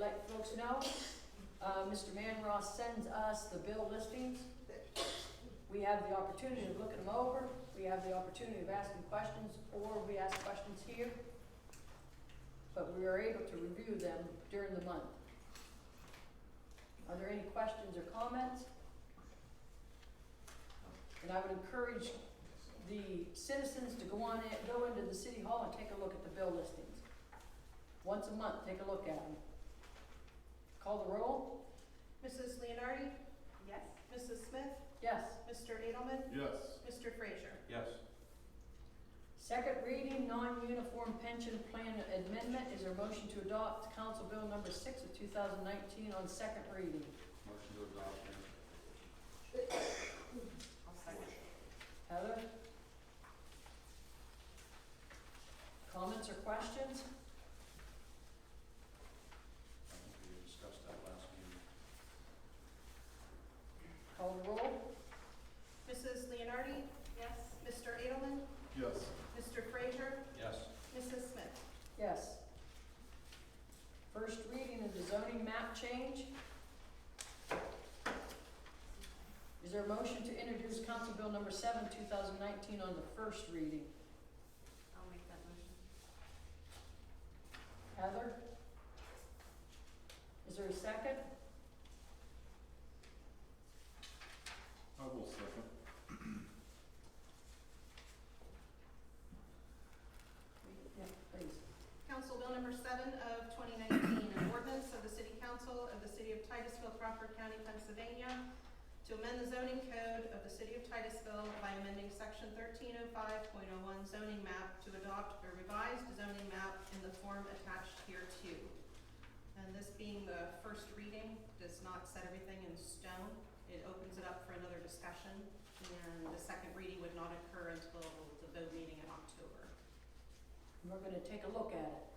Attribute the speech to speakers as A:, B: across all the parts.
A: let folks know. Uh, Mr. Manross sends us the bill listings. We have the opportunity of looking them over, we have the opportunity of asking questions, or we ask questions here. But we are able to review them during the month. Are there any questions or comments? And I would encourage the citizens to go on in, go into the city hall and take a look at the bill listings. Once a month, take a look at them. Call the roll?
B: Mrs. Leonardi? Yes. Mrs. Smith?
A: Yes.
B: Mr. Edelman?
C: Yes.
B: Mr. Frazier?
C: Yes.
A: Second reading, non-uniform pension plan amendment is there a motion to adopt Council Bill number six of two thousand nineteen on second reading.
C: Motion to adopt, ma'am.
B: I'll second.
A: Heather? Comments or questions?
C: I think we discussed that last meeting.
A: Call the roll?
B: Mrs. Leonardi? Yes. Mr. Edelman?
C: Yes.
B: Mr. Frazier?
C: Yes.
B: Mrs. Smith?
A: Yes. First reading of the zoning map change. Is there a motion to introduce Council Bill number seven, two thousand nineteen on the first reading?
B: I'll make that motion.
A: Heather? Is there a second?
C: I will second.
A: Yeah, please.
B: Council Bill number seven of twenty nineteen, an ordinance of the City Council of the City of Titusville, Crawford County, Pennsylvania, to amend the zoning code of the City of Titusville by amending section thirteen oh five point oh one zoning map to adopt a revised zoning map in the form attached here too. And this being the first reading, does not set everything in stone. It opens it up for another discussion, and the second reading would not occur until the vote meeting in October.
A: And we're gonna take a look at it.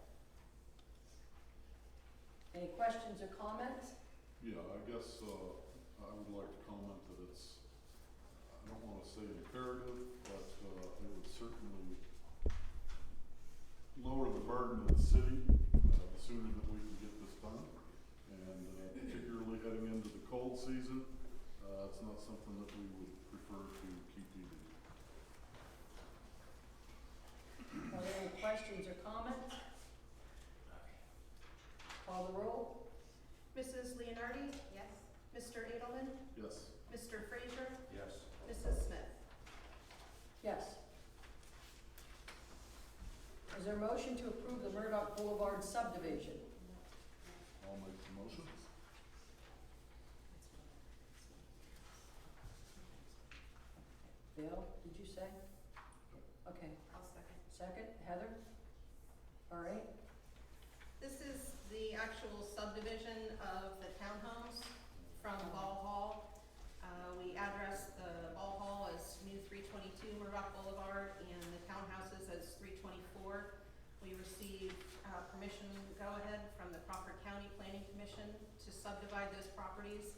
A: Any questions or comments?
D: Yeah, I guess, uh, I would like to comment that it's, I don't wanna say imperative, but, uh, it would certainly lower the burden of the city, uh, the sooner that we can get this done. And, uh, particularly heading into the cold season, uh, it's not something that we would prefer to keep either.
A: Are there any questions or comments? Call the roll?
B: Mrs. Leonardi? Yes. Mr. Edelman?
D: Yes,
B: Mr. Frazier?
C: Yes.
B: Mrs. Smith?
A: Yes. Is there a motion to approve the Murdoch Boulevard subdivision?
D: I'll make the motion.
A: Bill, did you say? Okay,
B: I'll second.
A: second, Heather? All right,
B: This is the actual subdivision of the townhomes from Ball Hall. Uh, we address the Ball Hall as new three twenty-two Murdoch Boulevard and the townhouses as three twenty-four. We received, uh, permission, go-ahead from the Crawford County Planning Commission to subdivide those properties.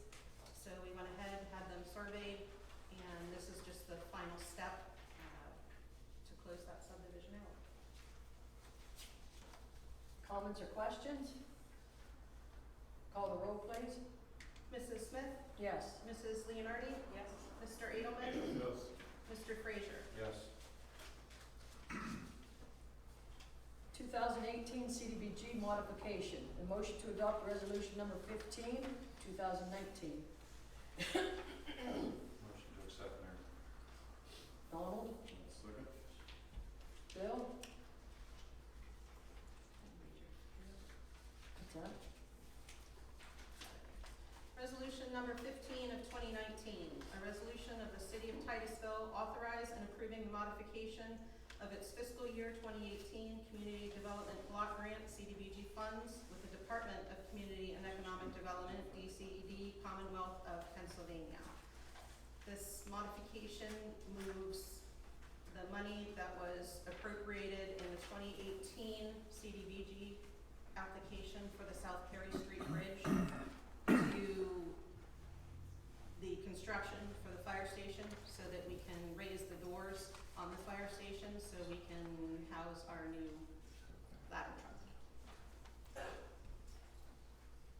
B: So we went ahead, had them surveyed, and this is just the final step, uh, to close that subdivision out.
A: comments or questions? Call the roll, please.
B: Mrs. Smith?
A: Yes.
B: Mrs. Leonardi? Yes. Mr. Edelman?
D: Yes.
B: Mr. Frazier?
C: Yes.
A: 2018 CDBG modification, the motion to adopt resolution number 15, 2019.
C: Motion to accept, ma'am.
A: Donald,
D: I'll second.
A: Bill? What's that?
B: Resolution number fifteen of twenty nineteen, a resolution of the city of Titusville authorize and approving the modification of its fiscal year twenty eighteen Community Development Block Grant CDBG funds with the Department of Community and Economic Development, DCED, Commonwealth of Pennsylvania. This modification moves the money that was appropriated in the twenty eighteen CDBG application for the South Perry Street